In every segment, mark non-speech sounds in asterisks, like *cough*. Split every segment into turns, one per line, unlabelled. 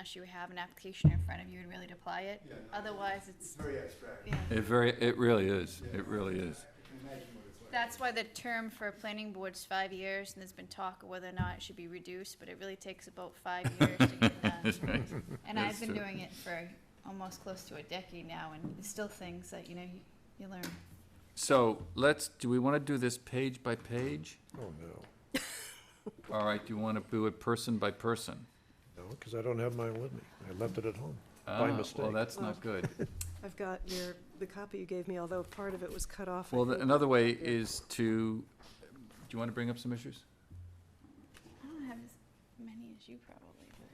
unless you have an application in front of you and really to apply it.
Yeah, no,
Otherwise,
It's
it's,
very abstract.
yeah.
It very, it really is,
Yeah.
it really is. *laughs*
I can imagine what it's like.
That's why the term for planning board's five years, and there's been talk of whether or not it should be reduced, but it really takes about five years to get done.
*laughs*
And I've
That's
been
true.
doing it for almost close to a decade now, and there's still things that, you know, you, you learn.
So let's, do we want to do this page by page?
Oh, no.
All right, do you want to do it person by person?
No, because I don't have mine with me. I left it at home. By
Ah, Well,
mistake.
that's not good.
I've got your, the copy you gave me, although part of it was cut off. I
Well, the-
think.
another way is to, do you want to bring up some issues?
I don't have as many as you probably, but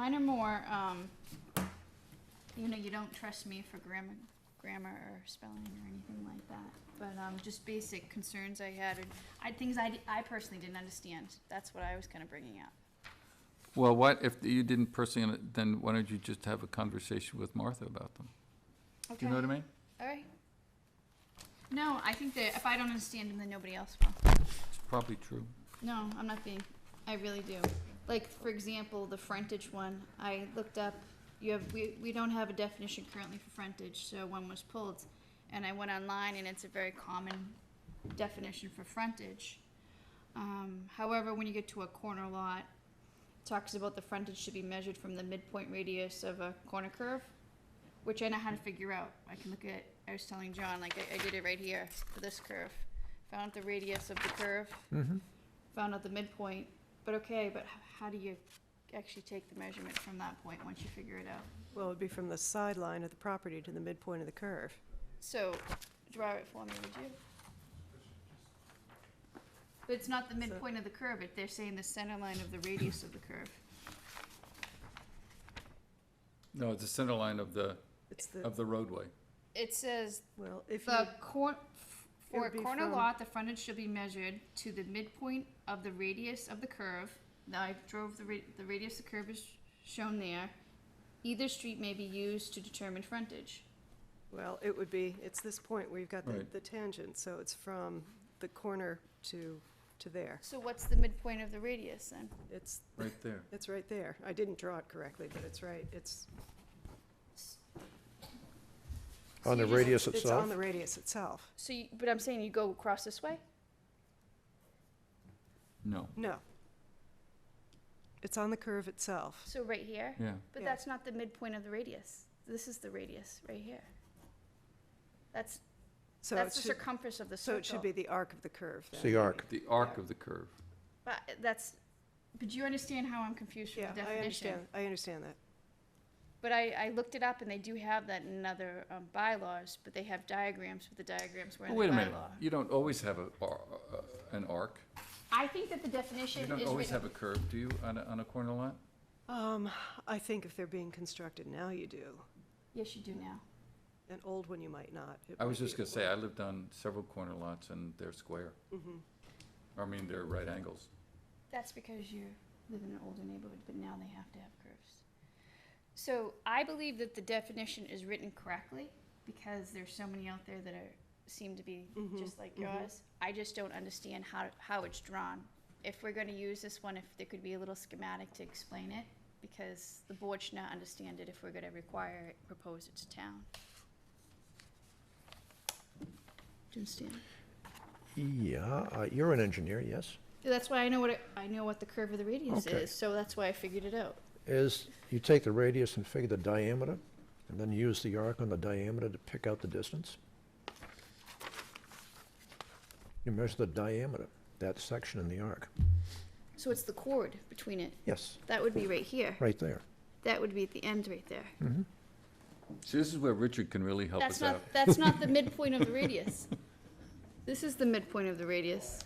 mine are more, um, you know, you don't trust me for grammar, grammar or spelling or anything like that. But, um, just basic concerns I had, and I, things I, di- I personally didn't understand. That's what I was kinda bringing up.
Well, what, if you didn't personally, then why don't you just have a conversation with Martha about them? Do you know what I mean?
All right. No, I think that if I don't understand him, then nobody else will.
It's probably true.
No, I'm not being. I really do. Like for example, the frontage one. I looked up. You have we we don't have a definition currently for frontage, so one was pulled, and I went online, and it's a very common definition for frontage. Um, however, when you get to a corner lot, it talks about the frontage should be measured from the midpoint radius of a corner curve, which I know how to figure out. I can look at. I was telling John, like I, I did it right here for this curve. Found the radius of the curve. Found out the midpoint. But okay, but h- how do you actually take the measurement from that point once you figure it out?
Well, it'd be from the sideline of the property to the midpoint of the curve.
So, draw it for me, would you? But it's not the midpoint of the curve, it, they're saying the center line of the radius of the curve.
No, it's the center line of the,
It's the,
of the roadway.
It says
well, if you,
the cor- f-
It
for a
would be
corner
from-
lot, the frontage should be measured to the midpoint of the radius of the curve. Now I drove the ra- the radius of the curve is shown there. Either street may be used to determine frontage.
well, it would be, it's this point where you've got the,
Right.
the tangent, so it's from the corner to, to there.
So what's the midpoint of the radius then?
It's,
Right there.
it's right there. I didn't draw it correctly, but it's right, it's,
So
On
you
the
just-
radius
it's on
itself?
the radius itself.
So, you, but I'm saying you go across this way?
No,
No. It's on the curve itself.
So right here?
yeah.
But
Yeah.
that's not the midpoint of the radius. This is the radius right here. That's,
So it
that's the
should,
circumference of the circle.
so it should be the arc of the curve then.
It's the arc.
The arc of the curve.
But that's, but you understand how I'm confused with
Yeah,
the
I
definition?
understand, I understand that.
But I, I looked it up and they do have that in other um, bylaws, but they have diagrams, but the diagrams were in the
Wait a minute,
bylaw.
you don't always have a, ar- uh, an arc.
I think that the
You
definition
don't
is
always have
written,
a curve, do you, on a, on a corner lot?
Um, I think if they're being constructed now, you do.
yes, you do now.
An old one, you might not. It
I was
might be
just gonna say, I lived on several corner lots and they're square.
Mm-hmm.
I mean, they're right angles.
That's because you live in an older neighborhood, but now they have to have curves. So I believe that the definition is written correctly because there's so many out there that are, seem to be just like yours. I just don't understand how, how it's drawn. If we're gonna use this one, if there could be a little schematic to explain it, because the board should not understand it if we're gonna require it, propose it to town. Do you understand?
Yeah, uh, you're an engineer, yes?
That's why I know what, it- I know what the curve of the radius
Okay.
is, so that's why I figured it out.
Is you take the radius and figure the diameter, and then use the arc on the diameter to pick out the distance? You measure the diameter, that section in the arc.
So it's the chord between it.
Yes,
That would be right here.
right there.
That would be at the end right there.
See, this is where Richard can really help
That's
us
not
out.
that's
*laughs*
not the midpoint of the radius. This is the midpoint of the radius.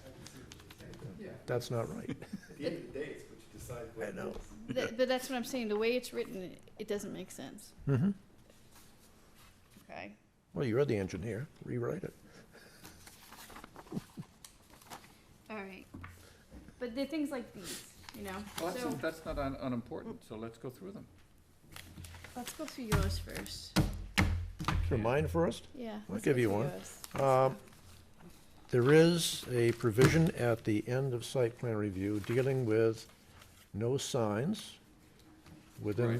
That's not *laughs* right.
At the end of the day, it's what you decide what
I know.
it is.
Th- but that's what I'm saying. The way it's written, it, it doesn't make sense.
Mm-hmm.
Okay.
Well, you're the engineer, rewrite it.
All right. But they're things like these, you know.
Well,
so
that's, that's not un- unimportant, so let's go through them.
let's go through yours first.
So mine first?
Yeah.
I'll
let's
give
go
you
through
one.
yours.
Um, There is a provision at the end of site plan review dealing with no signs within